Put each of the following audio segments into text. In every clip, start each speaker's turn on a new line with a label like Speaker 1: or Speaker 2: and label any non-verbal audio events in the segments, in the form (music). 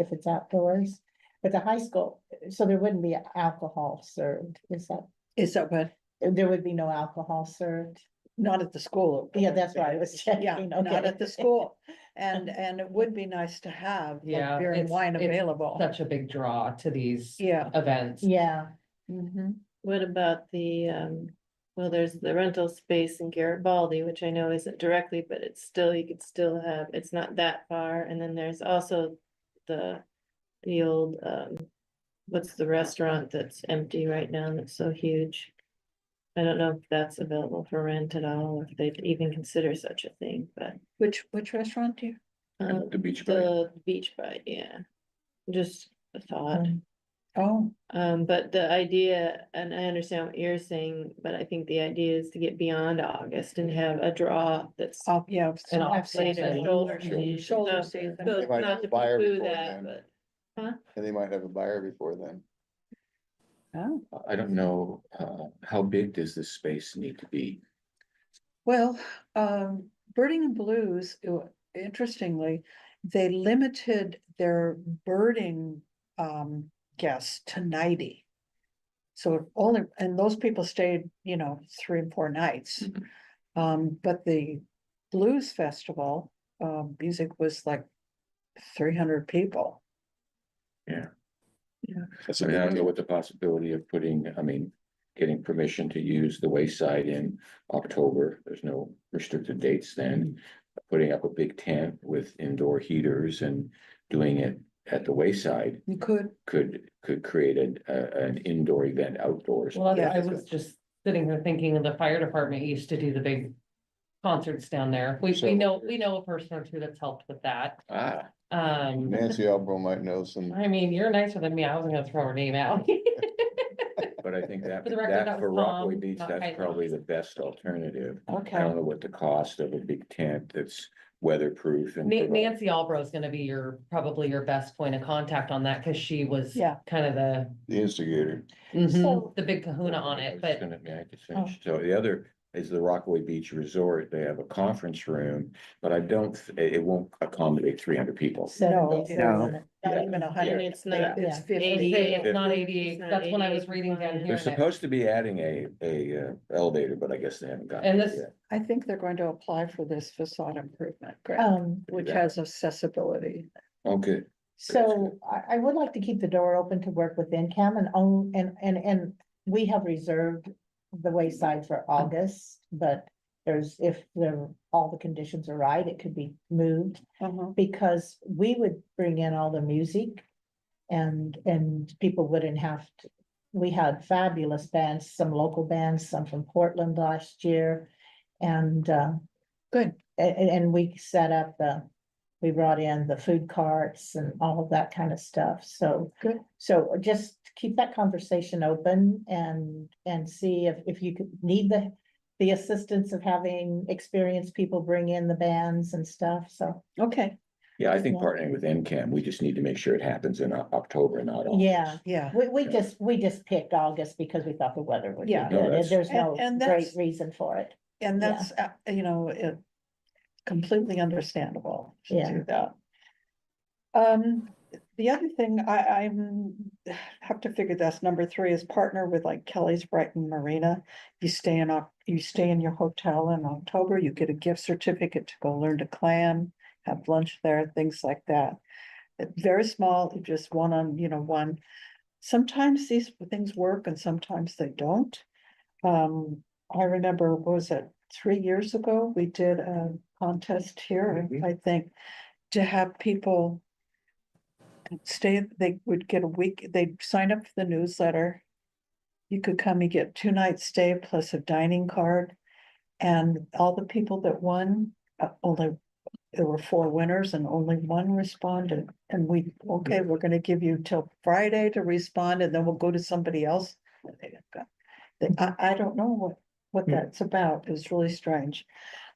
Speaker 1: if it's outdoors. But the high school, so there wouldn't be alcohol served, is that,
Speaker 2: Is that what,
Speaker 1: there would be no alcohol served?
Speaker 2: not at the school?
Speaker 1: Yeah, that's why I was checking.
Speaker 2: (laughs) Yeah, not
Speaker 1: okay. Um,
Speaker 2: at the school. And, and it would be nice to have like,
Speaker 3: Yeah,
Speaker 2: beer and
Speaker 3: it's-
Speaker 2: wine
Speaker 3: it's
Speaker 2: available.
Speaker 3: such a big draw to these
Speaker 2: Yeah.
Speaker 3: events.
Speaker 1: Yeah, Mm-hmm.
Speaker 2: Mhm.
Speaker 4: What about the, um, well, there's the rental space in Garibaldi, which I know isn't directly, but it's still, you could still have, it's not that far, and then there's also the, the old, um, what's the restaurant that's empty right now that's so huge? I don't know if that's available for rent at all, if they'd even consider such a thing, but,
Speaker 2: Which, which restaurant do you?
Speaker 4: uh,
Speaker 5: The beach. bay.
Speaker 4: the beach by, yeah. Just a thought.
Speaker 2: Oh,
Speaker 4: Um, but the idea, and I understand what you're saying, but I think the idea is to get beyond August and have a draw that's.
Speaker 2: oh, yeah.
Speaker 3: And
Speaker 2: so-
Speaker 3: offsite
Speaker 4: Later,
Speaker 3: and-
Speaker 4: shoulder
Speaker 3: Mhm.
Speaker 4: season.
Speaker 2: Shoulder
Speaker 4: No,
Speaker 2: season.
Speaker 4: so
Speaker 5: They might
Speaker 4: not to
Speaker 5: fire
Speaker 4: preclude
Speaker 5: before
Speaker 4: that,
Speaker 5: then.
Speaker 4: but
Speaker 5: And they might have a buyer before then.
Speaker 2: Oh.
Speaker 5: I don't know, uh, how big does this space need to be?
Speaker 2: Well, um, Birding and Blues, uh, interestingly, they limited their birding um guests to ninety. So it only, and those people stayed, you know, three and four nights.
Speaker 5: Mhm.
Speaker 2: Um, but the blues festival, uh, music was like three hundred people.
Speaker 5: I mean, I don't know what the possibility of putting, I mean, getting permission to use the wayside in October, there's no restricted dates then. Putting up a big tent with indoor heaters and doing it at the wayside
Speaker 2: You could,
Speaker 5: could, could create an, uh, an indoor event outdoors.
Speaker 3: Well,
Speaker 2: Yeah.
Speaker 3: I I was just sitting here thinking of the fire department used to do the big concerts down there. We, we
Speaker 5: So-
Speaker 3: know, we know a person or two that's helped with that.
Speaker 5: Ah,
Speaker 3: Um,
Speaker 6: Nancy Albro might know some,
Speaker 3: I mean, you're nicer than me. I wasn't gonna throw her name out. (laughs)
Speaker 5: but I think that,
Speaker 3: For the record,
Speaker 5: that
Speaker 3: that
Speaker 5: for
Speaker 3: was
Speaker 5: Rockaway
Speaker 3: Tom,
Speaker 5: Beach,
Speaker 3: not
Speaker 5: that's
Speaker 3: Kaiser.
Speaker 5: probably the best alternative. I
Speaker 2: okay,
Speaker 5: don't know what the cost of a big tent that's weatherproof and.
Speaker 3: Na-
Speaker 5: provide-
Speaker 3: Nancy Albro is gonna be your, probably your best point of contact on that, cause she was
Speaker 2: Yeah.
Speaker 3: kind of the,
Speaker 6: the instigator.
Speaker 3: mhm,
Speaker 1: So-
Speaker 3: the big kahuna on
Speaker 5: I
Speaker 3: it,
Speaker 5: was
Speaker 3: but Oh.
Speaker 5: gonna- may I just finish? So the other is the Rockaway Beach Resort. They have a conference room, but I don't, th- it, it won't accommodate three hundred people.
Speaker 1: seven
Speaker 2: No,
Speaker 1: days,
Speaker 2: no.
Speaker 1: isn't it?
Speaker 2: not even a
Speaker 4: and
Speaker 2: hundred,
Speaker 4: it's not.
Speaker 2: it's
Speaker 1: Yeah.
Speaker 2: fifty.
Speaker 3: Hey, it's
Speaker 5: It-
Speaker 3: not
Speaker 4: It's
Speaker 3: eighty-eight,
Speaker 4: not
Speaker 3: that's when I was
Speaker 4: 88
Speaker 3: reading down
Speaker 4: compliant.
Speaker 3: here.
Speaker 5: They're
Speaker 3: and I-
Speaker 5: supposed to be adding a, a uh, elevator, but I guess they haven't gotten.
Speaker 3: And
Speaker 5: it
Speaker 3: this-
Speaker 5: yet.
Speaker 2: I think they're going to apply for this facade improvement grant,
Speaker 1: Um,
Speaker 2: which
Speaker 5: Yeah. Oh,
Speaker 2: has accessibility.
Speaker 5: Okay,
Speaker 1: so I, I would like to keep the door open to work with NCAM and own, and, and, and we have reserved the wayside for August, but there's, if the, all the conditions are right, it could be moved. Mm-hmm.
Speaker 2: Uh-huh.
Speaker 1: because we would bring in all the music. And, and people wouldn't have to, we had fabulous bands, some local bands, some from Portland last year. And, uh,
Speaker 2: Good.
Speaker 1: a- a- and we set up the, we brought in the food carts and all of that kind of stuff, so.
Speaker 2: Good.
Speaker 1: So just keep that conversation open and, and see if, if you could need the, the assistance of having experienced people bring in the bands and stuff, so.
Speaker 2: Okay,
Speaker 5: yeah, I think
Speaker 1: Yeah.
Speaker 5: partnering with NCAM, we just need to make sure it happens in O- October, not August.
Speaker 1: Yeah,
Speaker 2: yeah,
Speaker 1: we, we
Speaker 5: Yeah.
Speaker 1: just, we just picked August because we thought the weather would be
Speaker 2: Yeah.
Speaker 5: No,
Speaker 1: good, and
Speaker 5: that's-
Speaker 1: there's
Speaker 2: And-
Speaker 1: no
Speaker 2: and
Speaker 1: great
Speaker 2: that's-
Speaker 1: reason for it.
Speaker 2: and
Speaker 1: Yeah.
Speaker 2: that's, uh, you know, it completely understandable to
Speaker 1: Yeah.
Speaker 2: do that. Um, the other thing I, I'm, have to figure this, number three is partner with like Kelly's Brighton Marina. You stay in, Oc- you stay in your hotel in October, you get a gift certificate to go learn to clam, have lunch there, things like that. Uh, Very small, just one on, you know, one. Sometimes these things work and sometimes they don't. Um, I remember, what was it, three years ago, we did a contest here,
Speaker 5: Mhm.
Speaker 2: I think, to have people. Stay, they would get a week, they'd sign up for the newsletter. You could come and get two night stay plus a dining card. And all the people that won, uh, only, there were four winners and only one responded. And we, okay, we're gonna give you till Friday to respond and then we'll go to somebody else. They- I, I don't know what, what
Speaker 5: Hmm.
Speaker 2: that's about, it was really strange.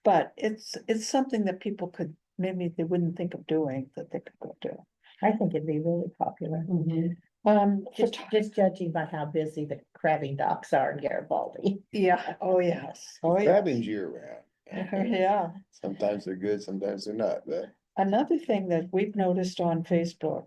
Speaker 2: But it's, it's something that people could, maybe they wouldn't think of doing, that they could go do.
Speaker 1: I think it'd be really popular,
Speaker 4: Mm-hmm.
Speaker 3: Mhm.
Speaker 2: Um,
Speaker 1: just,
Speaker 2: photo-
Speaker 1: just judging by how busy the crabbing docks are in Garibaldi.
Speaker 2: yeah, oh, yes, oh, yeah,
Speaker 6: Crabbing's year round.
Speaker 2: (laughs) yeah.
Speaker 6: Sometimes they're good, sometimes they're not, but
Speaker 2: Another thing that we've noticed on Facebook